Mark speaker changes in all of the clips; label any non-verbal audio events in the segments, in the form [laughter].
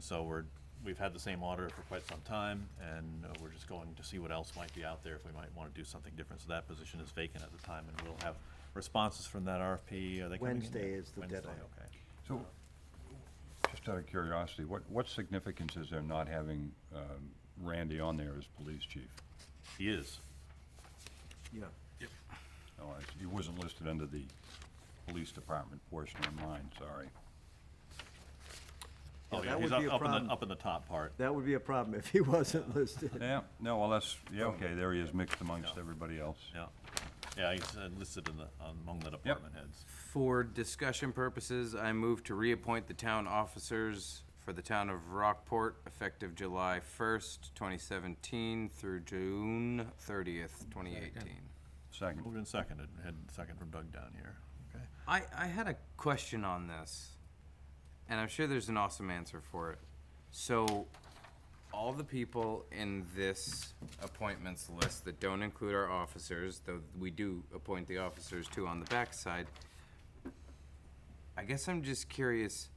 Speaker 1: so we're, we've had the same auditor for quite some time, and uh, we're just going to see what else might be out there, if we might wanna do something different. So that position is vacant at the time, and we'll have responses from that RFP, are they coming in yet?
Speaker 2: Wednesday is the deadline.
Speaker 1: Wednesday, okay.
Speaker 3: So, just out of curiosity, what, what significance is there not having um, Randy on there as police chief?
Speaker 1: He is,
Speaker 2: Yeah.
Speaker 3: Oh, I- he wasn't listed under the police department portion of mine, sorry.
Speaker 1: oh,
Speaker 2: that
Speaker 1: yeah, he's
Speaker 2: would
Speaker 1: up,
Speaker 2: be a
Speaker 1: up in
Speaker 2: problem.
Speaker 1: the, up in the top part.
Speaker 2: That would be a problem if he [laughs] wasn't listed.
Speaker 3: Yeah, no, well, that's, yeah, okay, there he is mixed amongst
Speaker 1: Yeah.
Speaker 3: everybody else.
Speaker 1: Yeah, yeah, he's uh, listed in the, among the department heads.
Speaker 4: For discussion purposes, I move to reappoint the town officers for the town of Rockport effective July 1st, 2017 through June 30th, 2018.
Speaker 3: Second,
Speaker 1: Moved and seconded, had second from Doug down here, okay?
Speaker 4: I, I had a question on this, and I'm sure there's an awesome answer for it. So, all the people in this appointments list that don't include our officers, though we do appoint the officers too on the backside, I guess I'm just curious.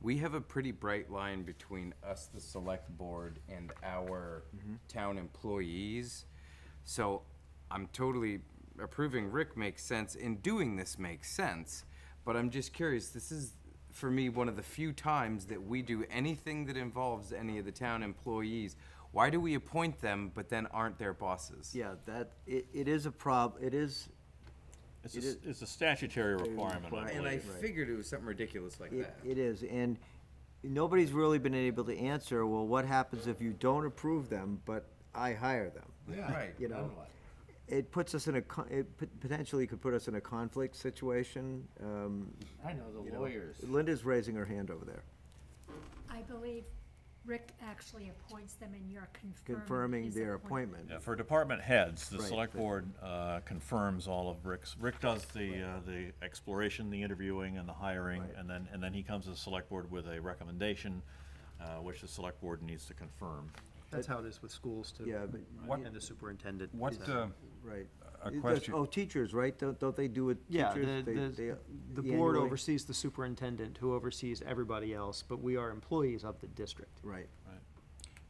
Speaker 4: We have a pretty bright line between us, the select board, and our town employees. So I'm totally approving Rick makes sense, and doing this makes sense. But I'm just curious. This is, for me, one of the few times that we do anything that involves any of the town employees. Why do we appoint them, but then aren't their bosses?
Speaker 2: Yeah, that, it, it is a prob, it is,
Speaker 1: It's a, s- it's a statutory requirement, I
Speaker 2: requirement.
Speaker 4: And I
Speaker 1: believe.
Speaker 2: Right.
Speaker 4: figured it was something ridiculous like
Speaker 2: it
Speaker 4: that.
Speaker 2: it is, and nobody's really been able to answer, well, what happens if you don't approve them, but I hire them?
Speaker 4: Right.
Speaker 2: You know, it puts us in a, con- it pot- potentially could put us in a conflict situation. um,
Speaker 5: I know the
Speaker 2: know.
Speaker 5: lawyers.
Speaker 2: Linda's raising her hand over there.
Speaker 6: I believe Rick actually appoints them and you're confirming.
Speaker 2: confirming
Speaker 6: his
Speaker 2: their appointment.
Speaker 1: Yeah, for department heads, the
Speaker 2: Right,
Speaker 1: select
Speaker 2: but-
Speaker 1: board uh, confirms all of Rick's, Rick does the, uh, the exploration, the interviewing, and the hiring,
Speaker 2: Right.
Speaker 1: and then, and then he comes to the select board with a recommendation, uh, which the select board needs to confirm.
Speaker 5: That's how it is with schools too.
Speaker 2: Yeah, but-
Speaker 3: What-
Speaker 5: And the superintendent.
Speaker 3: what,
Speaker 5: is-
Speaker 3: uh,
Speaker 2: Right.
Speaker 3: A
Speaker 2: It does-
Speaker 3: question-
Speaker 2: Oh, teachers, right? Don't, don't they do it?
Speaker 5: Yeah, the,
Speaker 2: teachers? They-
Speaker 5: the,
Speaker 2: they-
Speaker 5: the board
Speaker 2: annually?
Speaker 5: oversees the superintendent, who oversees everybody else, but we are employees of the district.
Speaker 2: Right.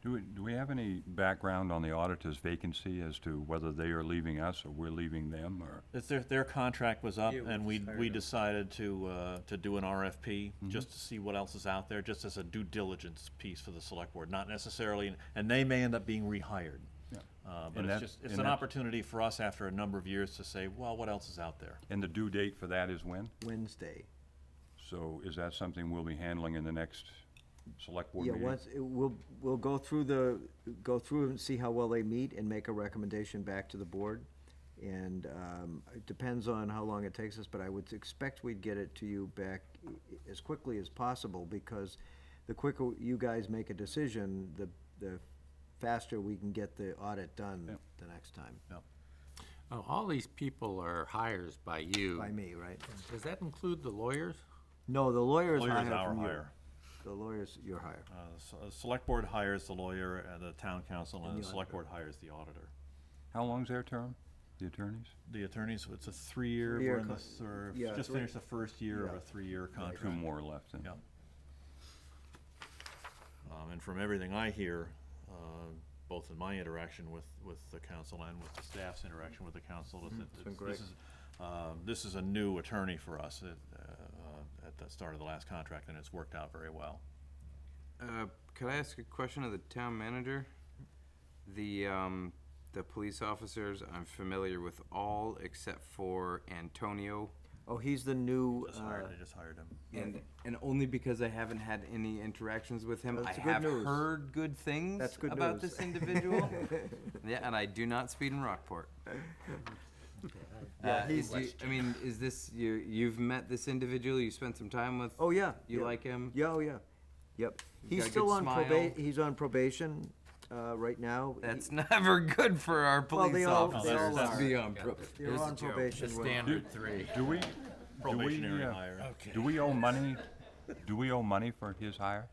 Speaker 3: do we, do we have any background on the auditor's vacancy as to whether they are leaving us or we're leaving them, or?
Speaker 1: It's their, their contract was up,
Speaker 4: Yeah, we
Speaker 1: and we,
Speaker 4: just hired
Speaker 1: we
Speaker 4: him.
Speaker 1: decided to, uh, to do an RFP,
Speaker 3: Mm-hmm.
Speaker 1: just to see what else is out there, just as a due diligence piece for the select board, not necessarily, and they may end up being rehired. Uh, But
Speaker 3: And
Speaker 1: it's
Speaker 3: that-
Speaker 1: just, it's
Speaker 3: and
Speaker 1: an
Speaker 3: that-
Speaker 1: opportunity for us after a number of years to say, well, what else is out there?
Speaker 3: And the due date for that is when?
Speaker 2: Wednesday.
Speaker 3: So is that something we'll be handling in the next select board
Speaker 2: Yeah,
Speaker 3: meeting?
Speaker 2: once, it- we'll, we'll go through the, go through and see how well they meet and make a recommendation back to the board. And um, it depends on how long it takes us, but I would expect we'd get it to you back i- i- as quickly as possible because the quicker you guys make a decision, the, the faster we can get the audit done the next time.
Speaker 7: Oh, all these people are hires by you.
Speaker 2: By me, right?
Speaker 7: Does that include the lawyers?
Speaker 2: No, the lawyer is
Speaker 1: Lawyer's
Speaker 2: hired
Speaker 1: our
Speaker 2: from you.
Speaker 1: hire.
Speaker 2: The lawyer's your hire.
Speaker 1: Uh, s- uh, Select board hires the lawyer, uh, the town council, and
Speaker 2: the
Speaker 1: the select board hires the auditor.
Speaker 3: How long's their term, the attorneys?
Speaker 1: The attorneys, it's a three-year,
Speaker 2: Three-year
Speaker 1: we're in the,
Speaker 2: con-
Speaker 1: thir-
Speaker 2: yeah,
Speaker 1: just
Speaker 2: three-
Speaker 1: finished the first year of
Speaker 2: yeah.
Speaker 1: a three-year
Speaker 3: Two
Speaker 1: contract.
Speaker 3: more left then.
Speaker 1: Yeah. Um, And from everything I hear, uh, both in my interaction with, with the council and with the staff's interaction with the council, is that
Speaker 2: Mm-hmm. been
Speaker 1: this-
Speaker 2: great.
Speaker 1: this is, um, this is a new attorney for us at, uh, uh, at the start of the last contract, and it's worked out very well.
Speaker 4: Uh, Could I ask a question of the town manager? The, um, the police officers, I'm familiar with all except for Antonio.
Speaker 2: Oh, he's the new,
Speaker 1: Just
Speaker 2: uh,
Speaker 1: hired, they just hired him.
Speaker 4: And, and only because I haven't had any interactions with him.
Speaker 2: That's
Speaker 4: I
Speaker 2: good
Speaker 4: have
Speaker 2: news.
Speaker 4: heard good things
Speaker 2: That's good
Speaker 4: about
Speaker 2: news. [laughs]
Speaker 4: this individual. Yeah, and I do not speed in Rockport.
Speaker 2: Yeah,
Speaker 4: Uh,
Speaker 2: he's-
Speaker 4: do you- I mean, is this, you, you've met this individual, you spent some time with?
Speaker 2: oh, yeah.
Speaker 4: You
Speaker 2: yeah.
Speaker 4: like him?
Speaker 2: Yeah, oh, yeah. Yep.
Speaker 4: got
Speaker 2: He's
Speaker 4: a
Speaker 2: still
Speaker 4: good
Speaker 2: on
Speaker 4: smile.
Speaker 2: probation, he's on probation, uh, right now. He-
Speaker 4: That's [laughs] never good for our
Speaker 2: Well, they
Speaker 4: police
Speaker 2: all-
Speaker 4: officers.
Speaker 2: they all
Speaker 4: Let's
Speaker 2: are.
Speaker 4: be on probation.
Speaker 2: They're
Speaker 7: Here's
Speaker 2: on
Speaker 7: the joke.
Speaker 2: probation
Speaker 7: The
Speaker 2: when-
Speaker 7: standard three.
Speaker 3: Do we?
Speaker 1: [laughs] Probationary
Speaker 3: uh,
Speaker 1: hire.
Speaker 3: Do we owe money, do we owe money for his hire?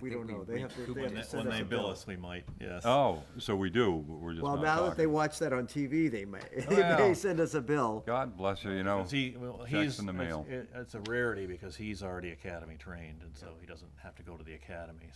Speaker 2: We
Speaker 4: think
Speaker 2: don't know,
Speaker 4: we-
Speaker 2: they
Speaker 4: we
Speaker 2: have to,
Speaker 4: could
Speaker 2: they have
Speaker 4: win
Speaker 1: When
Speaker 2: to
Speaker 1: they-
Speaker 2: send
Speaker 1: When
Speaker 2: us
Speaker 1: they
Speaker 2: a
Speaker 1: bill
Speaker 2: bill.
Speaker 1: us, we might, yes.
Speaker 3: Oh, so we do, but we're just
Speaker 2: Well,
Speaker 3: not
Speaker 2: now that they
Speaker 3: talking.
Speaker 2: watch that on TV, they may, [laughs] they may
Speaker 3: Well.
Speaker 2: send us a bill.
Speaker 3: God bless you, you know.
Speaker 1: Because he, well,
Speaker 3: Checks
Speaker 1: he's,
Speaker 3: in the
Speaker 1: it's-
Speaker 3: mail.
Speaker 1: it- it's a rarity because he's already academy trained, and so he doesn't have to go to the academy,